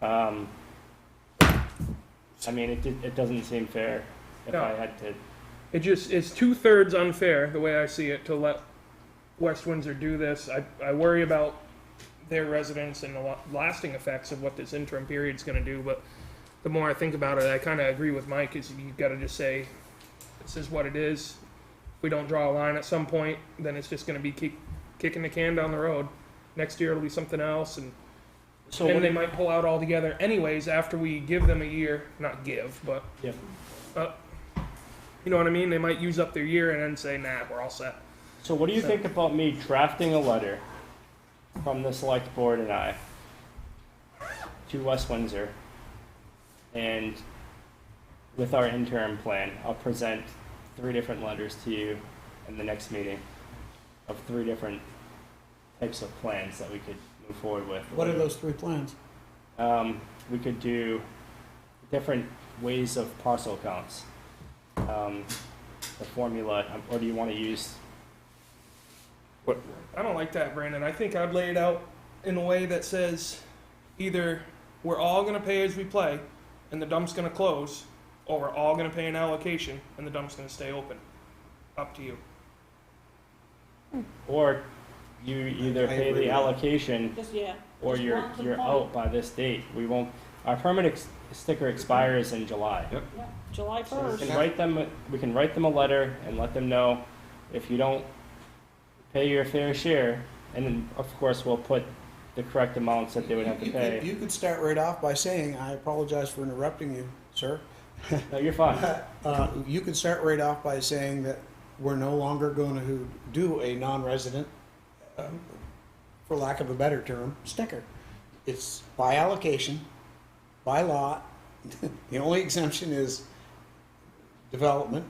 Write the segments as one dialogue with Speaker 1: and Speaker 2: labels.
Speaker 1: Um, I mean, it, it doesn't seem fair if I
Speaker 2: No.
Speaker 1: had to,
Speaker 2: It just it's two thirds unfair the way I see it to let West Windsor do this. I, I worry about their residents and the lo- lasting effects of what this interim period is going to do. But the more I think about it, I kind of agree with Mike. Is you got to just say this is what it is. If we don't draw a line at some point, then it's just going to be keep kicking the can down the road. Next year it'll be something else, and
Speaker 1: so
Speaker 2: then
Speaker 1: what,
Speaker 2: they might pull out altogether. Anyways, after we give them a year, not give, but
Speaker 1: yeah,
Speaker 2: You know what I mean? They might use up their year and then say, nah, we're all set.
Speaker 1: so what do you think about me drafting a letter from the select board and I to West Windsor? And with our interim plan, I'll present three different letters to you in the next meeting of three different types of plans that we could move forward with.
Speaker 3: What are those three plans?
Speaker 1: um, we could do different ways of parcel counts. Um, the formula, um, or do you want to use? What?
Speaker 2: I don't like that, Brandon. I think I'd lay it out in a way that says either we're all going to pay as we play and the dump's going to close, or we're all going to pay an allocation and the dump's going to stay open. Up to you.
Speaker 1: Or you either
Speaker 3: I
Speaker 1: pay
Speaker 3: agree
Speaker 1: the
Speaker 3: with
Speaker 1: allocation,
Speaker 4: Just, yeah.
Speaker 1: or
Speaker 4: Just
Speaker 1: you're
Speaker 4: want to
Speaker 1: you're
Speaker 4: play.
Speaker 1: out by this date. We won't. Our permit ex- sticker expires in July.
Speaker 4: yeah, July
Speaker 1: So we
Speaker 4: first.
Speaker 1: can write them. a- We can write them a letter and let them know if you don't pay your fair share, and then of course we'll put the correct amounts that they would have to
Speaker 3: You- you-
Speaker 1: pay.
Speaker 3: You could start right off by saying, I apologize for interrupting you, sir.
Speaker 1: No, you're fine.
Speaker 3: Uh, You could start right off by saying that we're no longer going to do a non-resident, uh, for lack of a better term, sticker. It's by allocation, by lot. The only exemption is development,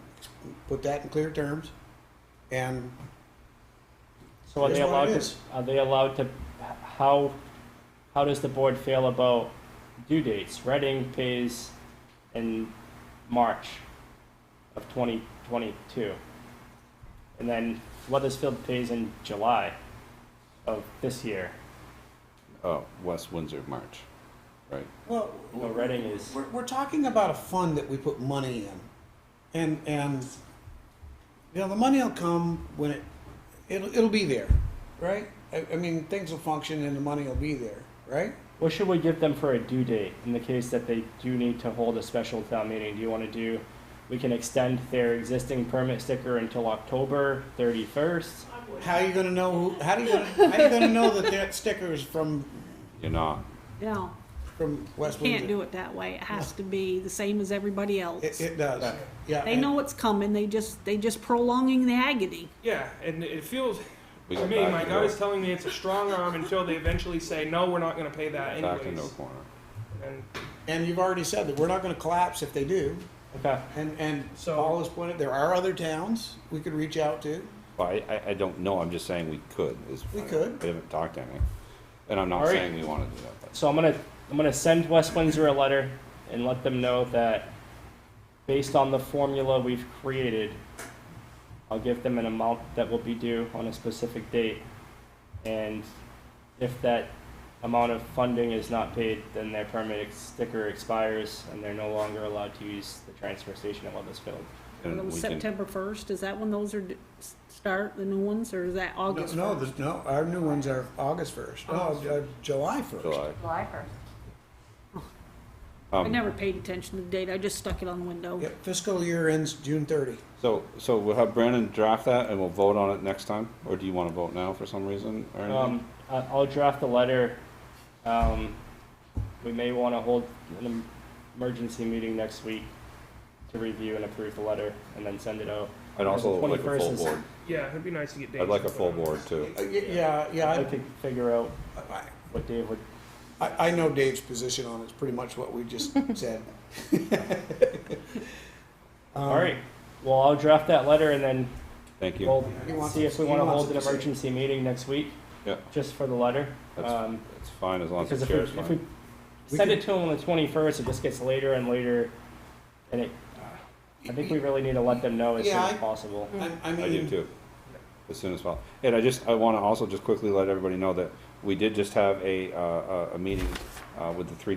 Speaker 3: put that in clear terms. And
Speaker 1: So are
Speaker 3: Here's
Speaker 1: they
Speaker 3: what
Speaker 1: allowed
Speaker 3: it
Speaker 1: to,
Speaker 3: is.
Speaker 1: are they allowed to, how, how does the board feel about due dates? Reading pays in March of twenty twenty-two. And then Weathersfield pays in July of this year.
Speaker 5: Oh, West Windsor March, right?
Speaker 3: Well,
Speaker 1: No, Reading is-
Speaker 3: We're, we're talking about a fund that we put money in, and and you know the money will come when it it'll, it'll be there, right? I, I mean things will function and the money will be there, right?
Speaker 1: What should we give them for a due date in the case that they do need to hold a special town meeting? Do you wanna do, we can extend their existing permit sticker until October thirty-first?
Speaker 3: How are you gonna know? Who, how do you gonna, how you gonna know that that sticker is from
Speaker 5: You're not.
Speaker 4: No,
Speaker 3: from West
Speaker 4: can't
Speaker 3: Windsor?
Speaker 4: do it that way. It has to be the same as everybody
Speaker 3: It,
Speaker 4: else.
Speaker 3: it does. Yeah.
Speaker 4: They
Speaker 3: and-
Speaker 4: know it's coming. They just, they just prolonging the agony.
Speaker 2: Yeah, and it feels
Speaker 5: We
Speaker 2: to
Speaker 5: got
Speaker 2: me,
Speaker 5: back
Speaker 2: my
Speaker 5: to
Speaker 2: gut
Speaker 5: the-
Speaker 2: is telling me it's a strong arm until they eventually say, no, we're not going to pay that
Speaker 5: Back into a
Speaker 2: anyways.
Speaker 5: corner.
Speaker 2: And
Speaker 3: And you've already said that we're not gonna collapse if they do.
Speaker 1: Okay.
Speaker 3: And and
Speaker 2: So-
Speaker 3: Paul has pointed there are other towns we could reach out to.
Speaker 5: Well, I, I, I don't know, I'm just saying we could, is.
Speaker 3: We could.
Speaker 5: We haven't talked to any, and I'm
Speaker 1: All
Speaker 5: not
Speaker 1: right.
Speaker 5: saying we wanna do that, but.
Speaker 1: So I'm gonna, I'm gonna send West Windsor a letter and let them know that based on the formula we've created, I'll give them an amount that will be due on a specific date. And if that amount of funding is not paid, then their permit ex- sticker expires and they're no longer allowed to use the transfer station at Weathersfield.
Speaker 5: and
Speaker 4: It was
Speaker 5: we can-
Speaker 4: September first. Is that when those are, d- s- start, the new ones, or is that August
Speaker 3: No,
Speaker 4: first?
Speaker 3: the, no, our new ones are August first, no, uh, July first.
Speaker 5: July.
Speaker 6: July first.
Speaker 4: I
Speaker 5: Um,
Speaker 4: never paid attention to the date. I just stuck it on the window.
Speaker 3: Yep, fiscal year ends June thirty.
Speaker 5: so, so we'll have Brandon draft that and we'll vote on it next time, or do you wanna vote now for some reason or anything?
Speaker 1: Um, I- I'll draft a letter. Um, we may want to hold an emergency meeting next week to review and approve the letter and then send it out.
Speaker 5: I'd also
Speaker 1: the
Speaker 5: like a
Speaker 1: 21st
Speaker 5: full
Speaker 1: is-
Speaker 5: board,
Speaker 2: yeah, it'd be nice to get dates.
Speaker 5: I'd like a
Speaker 2: and
Speaker 5: full
Speaker 2: put on.
Speaker 5: board too.
Speaker 3: Yeah, yeah,
Speaker 1: I'd like to figure out
Speaker 3: I- I,
Speaker 1: what Dave would,
Speaker 3: I, I know Dave's position on it's pretty much what we just said. Um,
Speaker 1: all right. Well, I'll draft that letter and then
Speaker 5: Thank you.
Speaker 1: we'll
Speaker 3: He wants-
Speaker 1: see if we
Speaker 3: he
Speaker 1: want to
Speaker 3: wants
Speaker 1: hold an
Speaker 3: it to say-
Speaker 1: emergency meeting next week.
Speaker 5: Yeah.
Speaker 1: Just for the letter.
Speaker 5: That's-
Speaker 1: Um,
Speaker 5: It's fine as long as
Speaker 1: Because
Speaker 5: the
Speaker 1: if we,
Speaker 5: chair's
Speaker 1: if we
Speaker 5: fine.
Speaker 3: We
Speaker 1: send
Speaker 3: could-
Speaker 1: it to them on the twenty-first, it just gets later and later. And it, I think we really need to let them know as soon
Speaker 3: Yeah,
Speaker 1: as
Speaker 3: I-
Speaker 1: possible.
Speaker 3: Um, I, I
Speaker 5: I do
Speaker 3: mean,
Speaker 5: too, as soon as possible. And I just, I want to also just quickly let everybody know that we did just have a, uh, a- a meeting uh, with the three